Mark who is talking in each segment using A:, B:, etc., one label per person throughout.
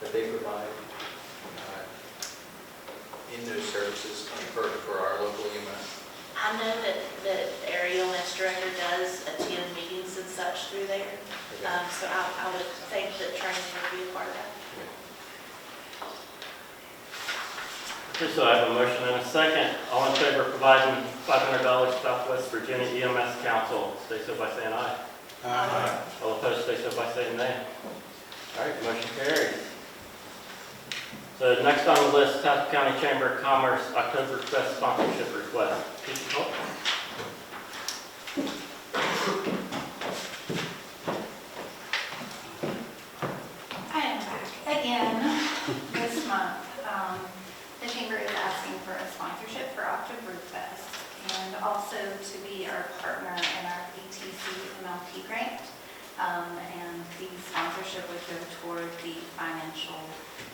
A: that they provide uh, in those services for, for our local EMS.
B: I know that, that our EMS director does attend meetings and such through there, um, so I, I would think that training would be a part of that.
C: Okay, so I have a motion and a second. All in favor of providing $500 to Southwest Virginia EMS Council, stay so by saying aye.
D: Uh,
A: Uh-huh.
B: Aye.
C: All opposed, stay so by saying nay. All right, motion carries. So next on the list, Tassau County Chamber of Commerce Oktoberfest sponsorship request. Keisha Cole?
E: I am back again this month. Um, The chamber is asking for a sponsorship for Oktoberfest and also to be our partner in our ETC MLP grant. Um, And the sponsorship would go toward the financial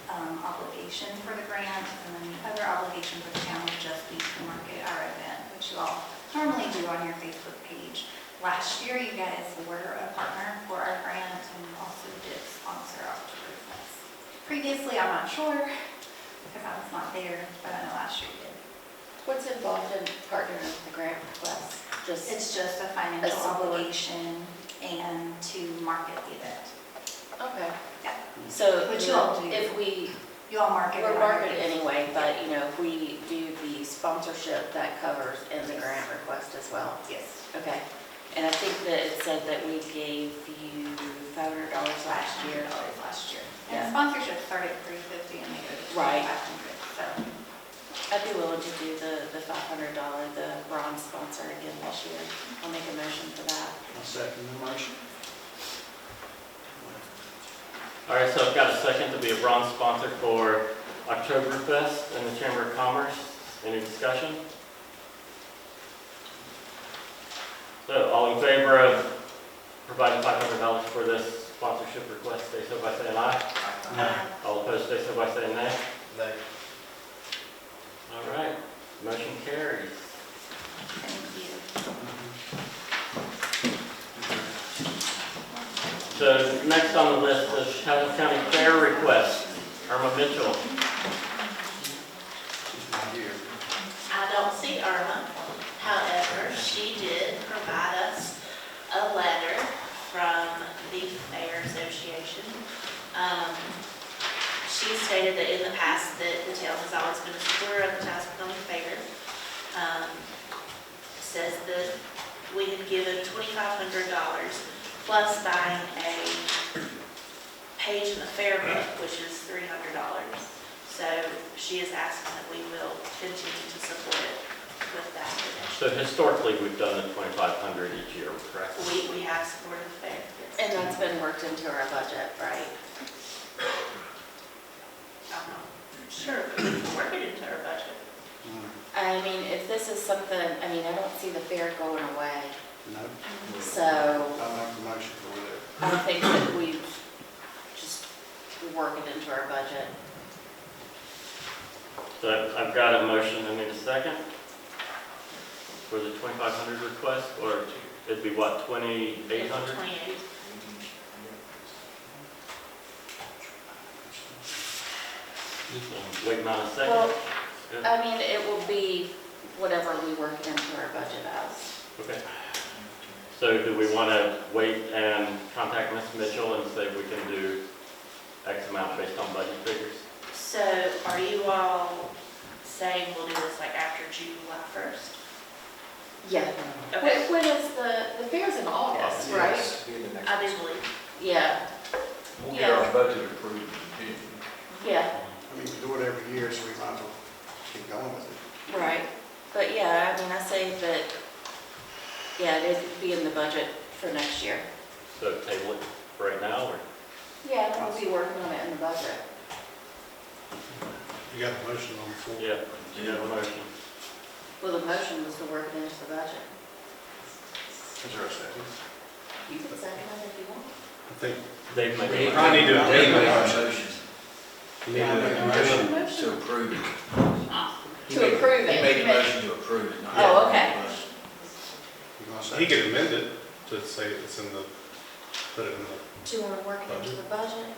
E: um, obligation for the grant and then the other obligation for the town would just be to market our event, which you all normally do on your Facebook page. Last year, you guys were a partner for our grant and also did sponsor Oktoberfest. Previously, I'm not sure, because I was not there, but I know last year you did.
D: What's involved in partnering with the grant request? Just,
E: It's just a financial
D: support.
E: obligation and to market the event.
D: okay.
E: Yeah.
D: So
E: Which
D: you
E: you'll
D: know,
E: do.
D: if we,
E: You all market. it
D: we're
E: on
D: marketed
E: your-
D: anyway, but you know, if we do the sponsorship, that covers in the grant request as well.
E: Yes.
D: Okay. And I think that it said that we gave you five hundred dollars last year.
E: Dollars last year.
D: Yeah.
E: And sponsorship started at three fifty and they go to
D: Right.
E: twenty-five hundred, so.
D: I'd be willing to do the, the five hundred dollar, the bronze sponsor again this year. I'll make a motion for that.
F: I'll second the motion.
C: All right, so I've got a second to be a bronze sponsor for Oktoberfest and the Chamber of Commerce. Any discussion? So all in favor of providing $500 for this sponsorship request, say so by saying aye.
E: um,
F: Aye.
C: All opposed, say so by saying nay.
A: They-
C: All right, motion carries.
E: Thank you.
C: So next on the list is Chatham County Fair request, Irma Mitchell.
F: She's not here.
B: I don't see Irma. However, she did provide us a letter from the Fair Association. Um, She stated that in the past that the town has always been a supporter of the Tassau County Fair. Um, Says that we had given twenty-five hundred dollars plus buying a page in the fair book, which is three hundred dollars. So she is asking that we will continue to support it with that donation.
C: So historically, we've done the 2,500 each year, correct?
B: We, we have supported the fair. yes.
D: And that's been worked into our budget, right?
B: I'm not Sure, we can work it into our budget.
D: I mean, if this is something, I mean, I don't see the fair going away,
F: No?
D: so
F: I'll make the motion for that.
D: I think that we just work it into our budget.
C: So I've got a motion, I need a second for the 2,500 request, or it'd be what, 2,800?
B: Twenty-eight.
C: Wait not a
D: Well,
C: second. Yeah,
D: I mean, it will be whatever we work it into our budget as.
C: Okay. So do we want to wait and contact Ms. Mitchell and say we can do X amount based on budget figures?
B: So are you all saying we'll do this like after July first?
D: Yeah.
B: Okay,
D: when is the, the fair's in August,
A: Yes, be in the next-
B: I do believe,
D: Yeah,
A: We'll get our budget approved in June.
D: yeah,
F: I mean, we do it every year, so we might as well keep going with it.
D: right. But yeah, I mean, I say that, yeah, it'd be in the budget for next year.
C: So table it for right now, or?
D: Yeah, we'll be working on it in the budget.
F: You got a motion on the floor?
C: Yeah. You have a motion.
D: Well, the motion was to work it into the budget.
F: Is there a second?
D: You can second it if you want.
F: I think.
C: Dave made
G: We
C: a
G: probably need to
F: Dave
G: amend
F: made a
G: our motion.
F: You
D: Yeah,
F: need
D: but
F: a
D: the motion-
F: motion.
G: To approve it. He
D: To
G: made-
D: approve it.
G: He made a motion to approve it, not.
D: Oh, okay.
F: You gonna second?
H: He could amend it to say it's in the, put it in the,
D: Do you want to work it into the budget?